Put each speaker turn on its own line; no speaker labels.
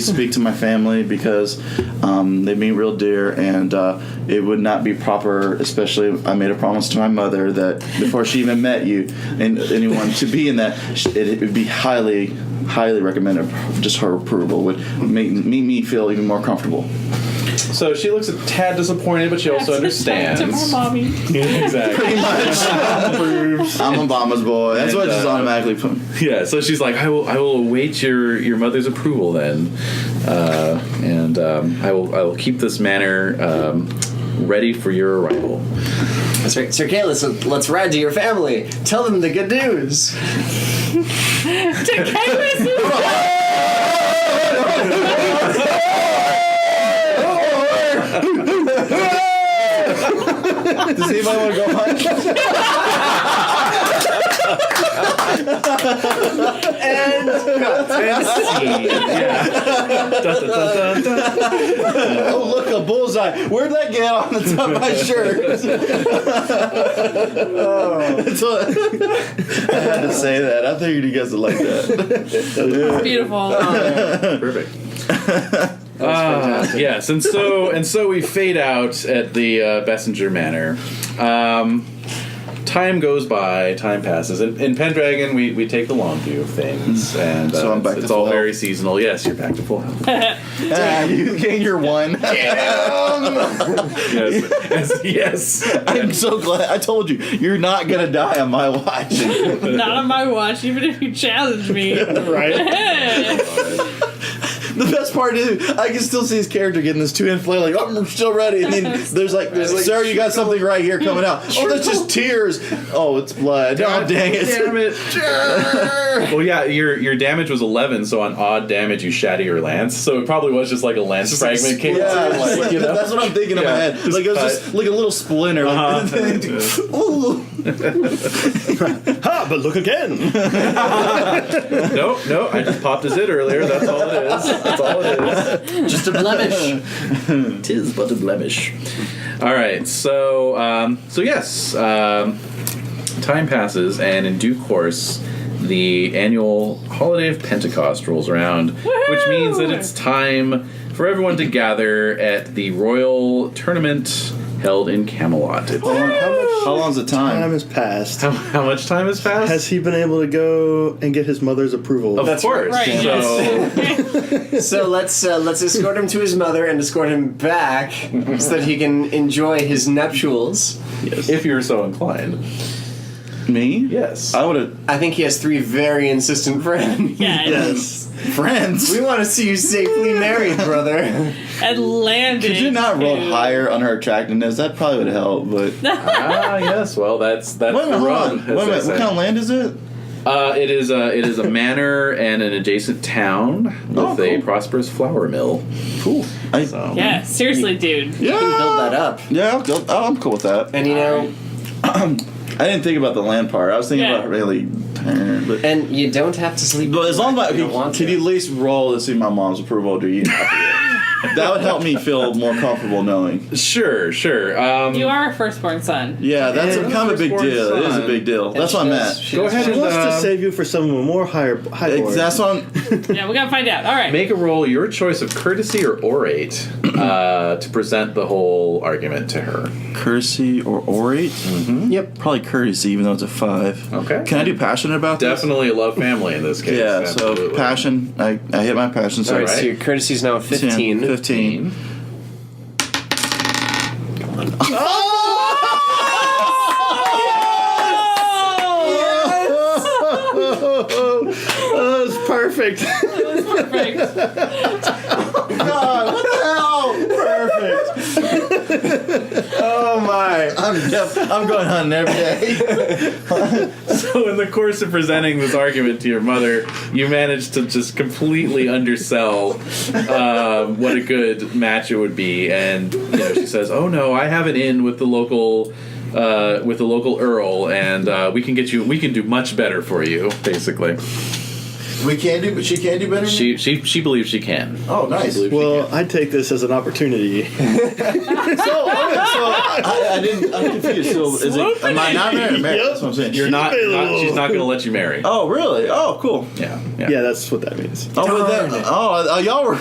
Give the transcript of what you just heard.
speak to my family because um, they mean real dear, and uh, it would not be proper. Especially, I made a promise to my mother that before she even met you and anyone to be in that, sh- it, it would be highly, highly recommended. Just her approval would make, make me feel even more comfortable.
So she looks a tad disappointed, but she also understands.
mommy.
exactly.
I'm Obama's boy. That's what I just
And, uh,
automatically put.
Yeah. So she's like, I will, I will await your your mother's approval then, uh, and um, I will, I will keep this manor um, ready for your arrival.
That's right. Sir Kayla, so let's ride to your family. Tell them the good news.
Does anybody want to go hunt? Oh, look, a bullseye. Where'd that get on the top of my shirt? That's what- I had to say that. I figured you guys would like that.
Beautiful.
Perfect. Ah, yes, and so and so we fade out at the uh, Bessinger Manor. Um, time goes by, time passes, and in Pendragon we, we take the long view of things, and uh,
Hmm. So I'm back
it's,
to
it's all
full
very seasonal. Yes, you're back to full health.
Ah, you gain your one.
yes, yes, yes.
I'm so glad. I told you, you're not gonna die on my watch.
Not on my watch, even if you challenge me.
right?
Hey.
The best part is, I can still see his character getting this two hand flail, like, oh, I'm still ready. And then there's like, sir, you got something right here coming out. Oh, that's just tears. Oh, it's blood. Oh, dang it.
Damn it. well, yeah, your your damage was 11, so on odd damage you shatter your lance. So it probably was just like a lance fragment came
Yeah,
through, like, you know.
that's what I'm thinking in my
Yeah,
head.
just
Like it was
cut. Uh-huh.
just like a little splinter. like- Ooh.
Ha! But look again.
No, no, I just popped a zit earlier. That's all it is. That's all it is.
Just a blemish.
Tis but a blemish. All right. So, um, so yes, um, time passes, and in due course, the annual holiday of Pentecost rolls around, which means that it's time for everyone to gather at the royal tournament held in Camelot. It's-
How, long, how long's the
Time
time?
has passed.
How, how much time has passed?
Has he been able to go and get his mother's approval?
of course.
Right,
So,
so let's uh, let's escort him to his mother and escort him back so that he can enjoy his nuptials.
if you're so inclined,
Me?
yes.
I would have
I think he has three very insistent friends.
Yes.
friends.
We want to see you safely married, brother.
And landing.
Could you not roll
too.
higher on her attractiveness? That probably would help. But wait a
ah, yes. Well, that's that's
minute,
the
hold
rub,
on.
as
Wait a
they
minute.
say.
What kind of land is it?
Uh, it is a it is a manor and an adjacent town with
Oh,
a
cool.
prosperous flour mill.
Cool. I,
So
Yeah, seriously, dude.
You can build
yeah.
that up.
Yeah. I'll- I'll- I'm cool with that.
And you know,
I didn't think about the land part. I was thinking
Yeah.
about really. tired, But,
and you don't have to sleep.
but as long as I,
You don't want
can
to.
you at least roll to see my mom's approval? Do you? that would help me feel more comfortable knowing.
sure, sure. Um,
You are a firstborn son.
Yeah, that's a, kind of a big
firstborn
deal. It is a
son.
big deal. That's what
She
I'm
does-
at.
she
Go
does
ahead
He
and
wants
uh,
to save you for someone more higher. high
Ex-
lord.
That's what I'm.
Yeah, we gotta find out. All right.
make a roll your choice of courtesy or orate uh, to present the whole argument to her.
Courtesy or orate?
Yep.
Probably courtesy, even though it's a five.
Okay.
Can I do passionate about this?
Definitely love family in this case.
Yeah, so
absolutely.
passion. I, I hit my passion. So
All right,
Alright.
so your courtesy's now
10,
15.
15.
Oh, it's perfect.
Perfect.
Perfect.
Oh my.
I'm, def- I'm going hunting every day.
So, in the course of presenting this argument to your mother, you managed to just completely undersell um, what a good match it would be, and you know, she says, "Oh no, I have an in with the local." Uh, with the local earl, and uh, we can get you. We can do much better for you. Basically,
We can do, but she can do better.
she she she believes she can.
oh, nice.
She believes she
well, I take this as an opportunity.
so, I, I didn't. I'm confused. So, is it, am I not married? married? That's what I'm saying.
can. You're not, not.
Available.
She's not going to let you marry.
Oh, really? Oh, cool.
Yeah,
Yeah, that's what that means.
Oh, but that, oh, uh, y'all were